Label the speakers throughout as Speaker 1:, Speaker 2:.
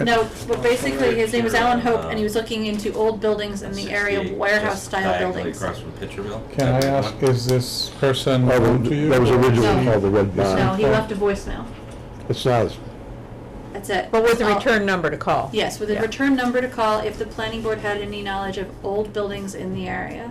Speaker 1: No, but basically, his name was Alan Hope, and he was looking into old buildings in the area of
Speaker 2: 68, just
Speaker 1: warehouse-style
Speaker 2: diagonally
Speaker 1: buildings.
Speaker 2: Across from Pitcherville.
Speaker 3: Can I ask, is this person
Speaker 4: Oh,
Speaker 3: known to you?
Speaker 4: That was originally
Speaker 1: No.
Speaker 4: called the Red
Speaker 1: No,
Speaker 4: Barn.
Speaker 1: he left a voicemail.
Speaker 4: It's not, as-
Speaker 1: That's it.
Speaker 5: But with the
Speaker 1: Oh,
Speaker 5: return number to call?
Speaker 1: Yes, with a
Speaker 5: Yeah.
Speaker 1: return number to call if the planning board had any knowledge of old buildings in the area,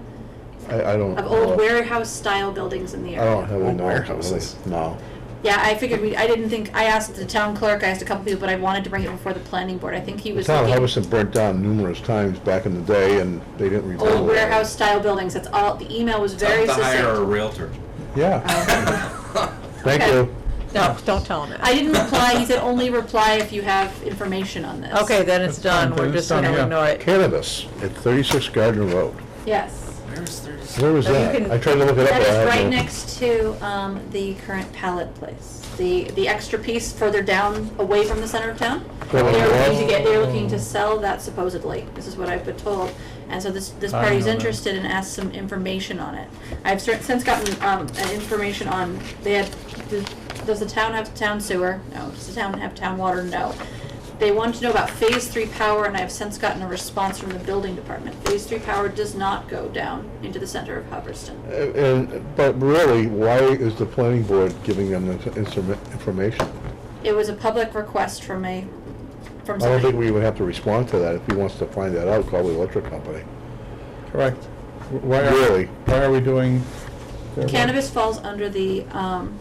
Speaker 4: I, I don't.
Speaker 1: of old warehouse-style buildings in the
Speaker 4: I
Speaker 1: area.
Speaker 4: don't have any
Speaker 6: Old
Speaker 4: knowledge of
Speaker 6: warehouses.
Speaker 4: this, no.
Speaker 1: Yeah, I figured we, I didn't think, I asked the town clerk, I asked a couple people, but I wanted to bring it before the planning board. I think he
Speaker 4: The
Speaker 1: was
Speaker 4: town of
Speaker 1: looking.
Speaker 4: Hubbardston burnt down numerous times back in the day, and they didn't rebuild it.
Speaker 1: Old warehouse-style buildings, that's all, the email was very
Speaker 2: Tough to hire a
Speaker 1: succinct.
Speaker 2: Realtor.
Speaker 1: Oh,
Speaker 4: Yeah. Thank
Speaker 1: Okay.
Speaker 4: you.
Speaker 5: No, don't tell him
Speaker 1: I
Speaker 5: that.
Speaker 1: didn't reply, he said only reply if you have information on this.
Speaker 5: Okay, then it's
Speaker 3: It's done,
Speaker 5: done, we're
Speaker 3: then it's
Speaker 5: just gonna
Speaker 3: done, yeah.
Speaker 5: ignore it.
Speaker 4: Cannabis at 36 Gardner Road.
Speaker 1: Yes.
Speaker 2: Where's thirty?
Speaker 4: Where was
Speaker 5: Oh, you
Speaker 4: that?
Speaker 5: can-
Speaker 4: I tried to look it up. but I
Speaker 1: That is
Speaker 4: had
Speaker 1: right
Speaker 4: no-
Speaker 1: next to, um, the current pallet place. The, the extra piece further down, away from the center of town. They're
Speaker 4: Oh, yeah.
Speaker 1: looking to get, they're looking to sell that supposedly, this is what I've been told. And so this, this
Speaker 3: I
Speaker 1: party's
Speaker 3: know that.
Speaker 1: interested and asked some information on it. I've cer- since gotten, um, uh, information on, they had, does- does the town have town sewer? No. Does the town have town water? No. They wanted to know about phase three power, and I have since gotten a response from the building department. Phase three power does not go down into the center of Hubbardston.
Speaker 4: Uh, And, but really, why is the planning board giving them this insorma- information?
Speaker 1: It was a public request from a, from
Speaker 4: I don't think
Speaker 1: somebody.
Speaker 4: we would have to respond to that. If he wants to find that out, call the electric company.
Speaker 3: Correct. Why are,
Speaker 4: Really?
Speaker 3: why are we doing? their work?
Speaker 1: Cannabis falls under the um,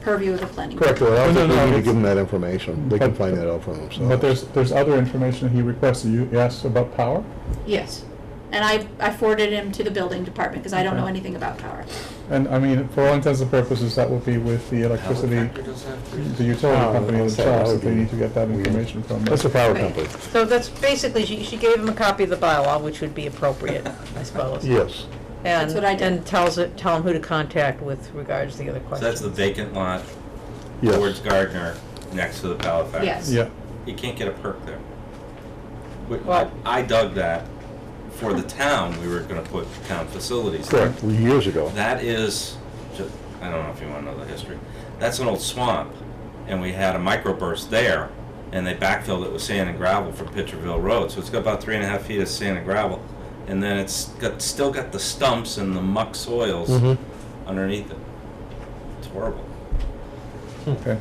Speaker 1: purview of the planning. board.
Speaker 4: Correct, well, I
Speaker 3: No,
Speaker 4: don't
Speaker 3: no,
Speaker 4: think we
Speaker 3: no,
Speaker 4: need to
Speaker 3: it's-
Speaker 4: give them that information. They can
Speaker 3: But-
Speaker 4: find that out for themselves.
Speaker 3: But there's, there's other information he requested, you asked about power?
Speaker 1: Yes. And I, I forwarded him to the building department because I don't know
Speaker 3: Okay.
Speaker 1: anything about power.
Speaker 3: And I mean, for all intents and purposes, that would be with the electricity, the utility
Speaker 4: Oh,
Speaker 3: company
Speaker 4: okay, that
Speaker 3: themselves,
Speaker 4: would
Speaker 3: if they
Speaker 4: be
Speaker 3: need to get that
Speaker 4: weird.
Speaker 3: information from them.
Speaker 4: That's the power
Speaker 1: Right.
Speaker 4: company.
Speaker 5: So that's basically, she, she gave him a copy of the bylaw, which would be appropriate, I suppose.
Speaker 4: Yes.
Speaker 5: And,
Speaker 1: what I did.
Speaker 5: and tells it, tell him who to contact with regards to the other
Speaker 2: So that's the
Speaker 5: questions.
Speaker 2: vacant lot
Speaker 4: Yes.
Speaker 2: towards Gardner, next to the pallet factory.
Speaker 1: Yes.
Speaker 3: Yeah,
Speaker 2: You can't get a perk there. We-
Speaker 5: Well-
Speaker 2: I dug that for the town, we were gonna put town facilities there.
Speaker 4: Correct, years ago.
Speaker 2: That is, ju- I don't know if you want to know the history. That's an old swamp, and we had a microburst there, and they backfilled it with sand and gravel from Pitcherville Road. So it's got about three and a half feet of sand and gravel, and then it's got still got the stumps and the muck soils
Speaker 4: Mhm.
Speaker 2: underneath it. It's horrible.
Speaker 3: okay.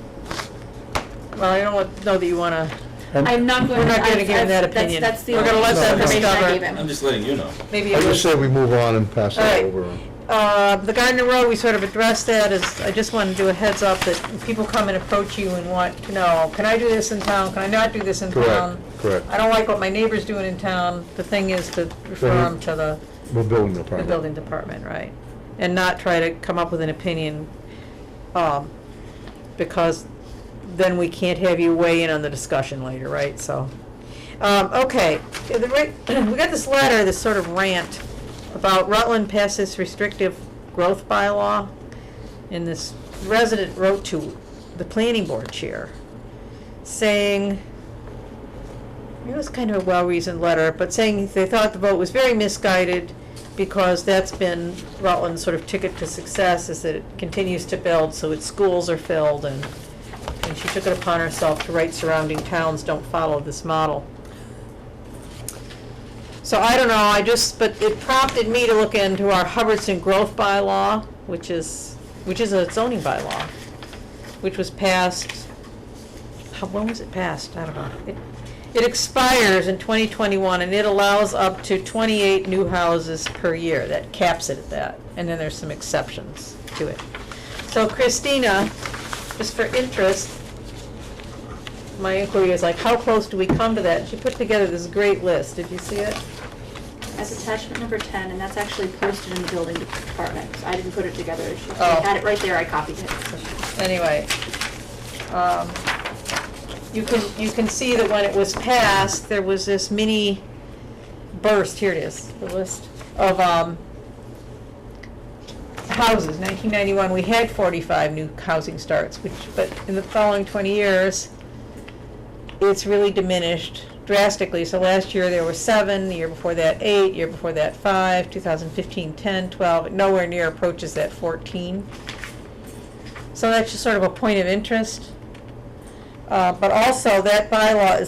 Speaker 5: Well, I don't know that you wanna,
Speaker 3: And-
Speaker 1: I'm not going to.
Speaker 5: We're not gonna
Speaker 1: I've-
Speaker 5: give him
Speaker 1: I've-
Speaker 5: that
Speaker 1: that's-
Speaker 5: opinion.
Speaker 1: That's the
Speaker 5: We're
Speaker 1: only
Speaker 5: gonna let
Speaker 4: that
Speaker 1: information I
Speaker 5: discover.
Speaker 1: gave him.
Speaker 2: I'm just letting you know.
Speaker 5: maybe
Speaker 4: I
Speaker 5: it
Speaker 4: just
Speaker 5: was,
Speaker 4: say we move on and pass that
Speaker 5: Alright.
Speaker 4: over.
Speaker 5: uh, the Gardner Road, we sort of addressed that as, I just wanna do a heads up that people come and approach you and want to know, can I do this in town, can I not do this in
Speaker 4: Correct,
Speaker 5: town?
Speaker 4: correct.
Speaker 5: Um, I don't like what my neighbor's doing in town, the thing is to refer
Speaker 4: Then-
Speaker 5: them to the.
Speaker 4: We're building the
Speaker 5: the
Speaker 4: apartment.
Speaker 5: building department, right? And not try to come up with an opinion, um, because then we can't have you weigh in on the discussion later, right? So, um, okay, Yeah, the right, we got this letter, this sort of rant about Rutland passes restrictive growth bylaw. And this resident wrote to the planning board chair saying, it was kind of a well-reasoned letter, but saying they thought the vote was very misguided because that's been Rutland's sort of ticket to success is that it continues to build, so its schools are filled and, and she took it upon herself to write surrounding towns don't follow this model. So I don't know, I just, but it prompted me to look into our Hubbardston growth bylaw, which is, which is a zoning bylaw, which was passed how, when was it passed? I don't know. It- It expires in 2021, and it allows up to 28 new houses per year. That caps it at that, and then there's some exceptions to it. So Christina, just for interest, my inquiry is like, how close do we come to that? She put together this great list. Did you see it?
Speaker 1: That's attachment number ten, and that's actually posted in the building department. I didn't put it together. She she
Speaker 5: Oh.
Speaker 1: had it right there, I copied it.
Speaker 5: anyway, um, you can, you can see that when it was passed, there was this mini burst, here it is, the list of, um, houses, nineteen ninety-one, we had forty-five new housing starts, which, but in the following twenty years, it's really diminished drastically. So last year there were seven, the year before that eight, year before that five, 2015 10, 12, nowhere near approaches that 14. So that's just sort of a point of interest. Uh, but also, that bylaw is